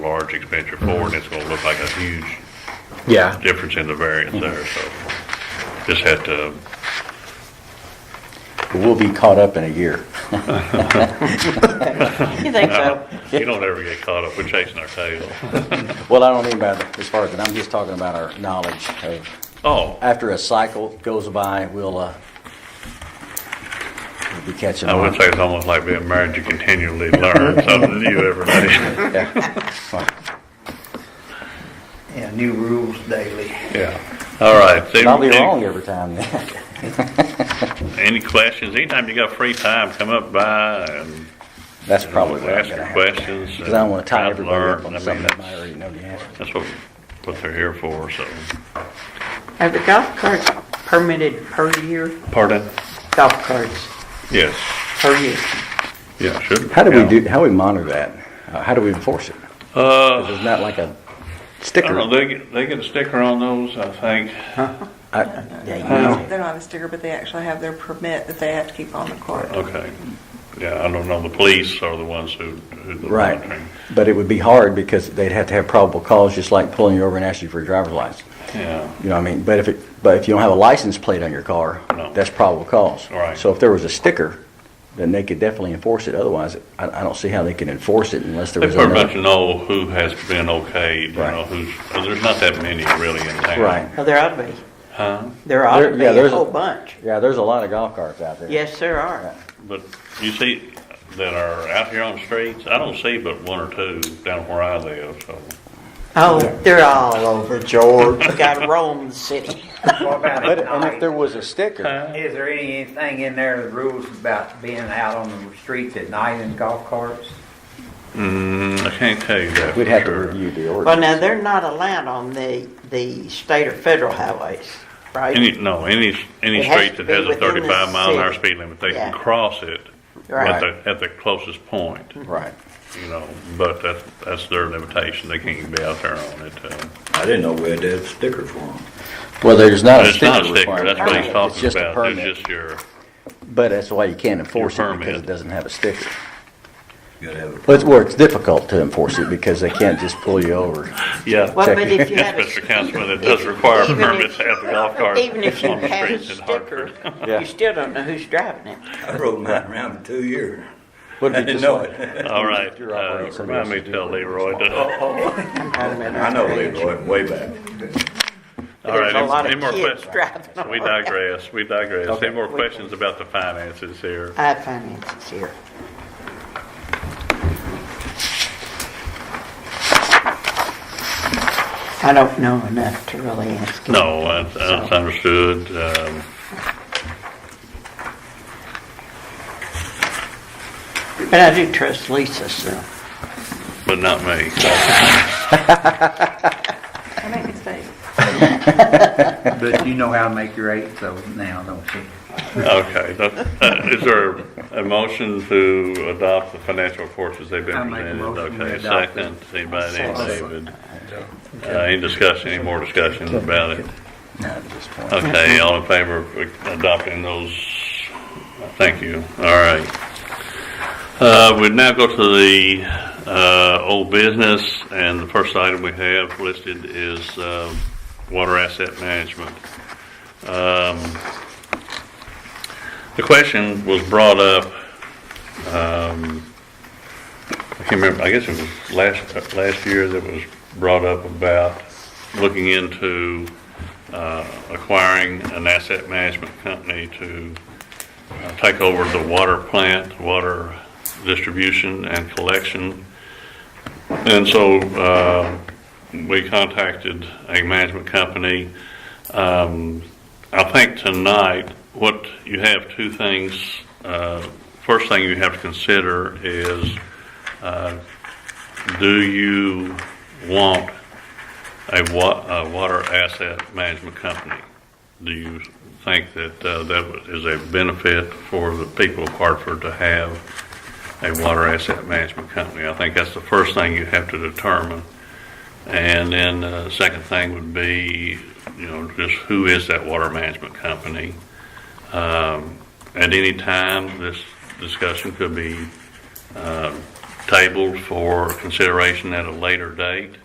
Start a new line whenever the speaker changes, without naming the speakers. large expenditure forward, and it's gonna look like a huge
Yeah,
difference in the variance there, so just had to,
We'll be caught up in a year.
You think so?
you don't ever get caught up, we're chasing our tail.
Well, I don't mean by the- as far as that, I'm just talking about our knowledge of,
Oh,
after a cycle goes by, we'll, uh, we'll be catching
I
on.
would say it's almost like being married, you continually learn something new every day.
Yeah, new rules daily.
Yeah. All right. so
I'll be
any-
wrong every time then.
Any questions, anytime you got free time, come up by and
That's probably what I'm
ask
gonna
your
have.
questions.
Because I don't want to tie
and
everybody
learn.
up
I
on
mean,
something that I
that's-
already know the answer.
That's what, what they're here for, so.
Are the golf carts permitted per year?
Pardon?
Golf carts
Yes,
per year?
yeah, should.
How do we do, how do we monitor that? Uh, How do we enforce it?
Uh,
There's not like a
I
sticker.
don't know, they get, they get a sticker on those, I think.
I-
Yeah, you
Oh.
they're not a sticker, but they actually have their permit that they have to keep on the court.
Okay. Yeah, I don't know, the police are the ones who, who do the
Right,
monitoring.
but it would be hard because they'd have to have probable cause, just like pulling you over and asking for your driver's license.
Yeah,
You know what I mean? But if it, but if you don't have a license plate on your car,
No.
that's probable cause.
Right.
So if there was a sticker, then they could definitely enforce it. Otherwise, I, I don't see how they can enforce it unless there
they
was
pretty much
another.
know who has been okayed, you
Right.
know, who's, there's not that many really in town.
Right.
Well, there ought to be.
Huh?
There ought
There-
to be
yeah,
a
there's a-
whole bunch.
Yeah, there's a lot of golf carts out there.
Yes, there are.
But you see, that are out here on the streets, I don't see but one or two down where I live, so.
Oh, they're all,
All over George.
gotta roam the city.
What about
But,
at
and if there
night?
was a sticker,
Is there anything in there, the rules about being out on the streets at night in golf carts?
Mm, I can't tell you that
we'd
for
have to
sure.
review the
Well,
ordinance.
now, they're not allowed on the, the state or federal highways,
Any,
right?
no, any, any
It has
street
to
that
be
has a
within the
thirty-five mile an hour
city.
speed limit, they can
Yeah.
cross it at
Right. Mm-hmm.
the, at the closest point,
Right.
you know, but that's, that's their limitation, they can't be out there on it, uh.
I didn't know we had to have stickers for them.
Well, there's not a
It's not a
sticker
sticker,
requirement.
that's what he's
It's
talking
just a
about,
permit.
it's just your,
But that's why you can't enforce it because
permit.
it doesn't have a sticker.
You gotta have
But it's where it's difficult to enforce it because they can't just pull you over.
yeah.
Well, but if you
Yes,
have a
Mr. Councilman, it does require a
Even if-
permit to have the golf cart on
Even
the
if you have a
streets in Hartford.
sticker,
Yeah.
you still don't know who's driving it.
I rode mine around for two years.
What if
I
you
didn't
just
know
like-
it.
All right,
You're operating
uh, remind
somebody
me
else's
to tell
vehicle.
Leroy to,
I know Leroy, way back.
all right,
There's a lot
any- any
of
more
kids
questions?
driving on
We
it.
digress, we digress.
Okay.
Any more questions about the finances here?
I have finances here. I don't know enough to really ask. you.
No, that's that's understood. Um,
But I do trust Lisa, so.
but not me.
I make mistakes.
But you know how to make your eight, so now, don't you?
Okay, that- uh, is there a motion to adopt the financial reports as they've
I
been
make a
presented?
motion we
Okay,
adopt
second, anybody, named David? Uh, Any discussion, any more discussion about it?
No, at this point.
Okay, all in favor of adopting those? Thank you, all right. Uh, we now go to the, uh, old business, and the first item we have listed is, uh, water asset management. Um, The question was brought up, um, I can't remember, I guess it was last, last year that was brought up about looking into, uh, acquiring an asset management company to uh, take over the water plant, water distribution and collection. And so uh, we contacted a management company. Um, I think tonight, what you have two things. Uh, First thing you have to consider is, uh, do you want a wa- a water asset management company. Do you think that uh, that is a benefit for the people of Hartford to have a water asset management company? I think that's the first thing you have to determine. And then the second thing would be, you know, just who is that water management company? Um, At any time, this discussion could be um, tabled for consideration at a later date.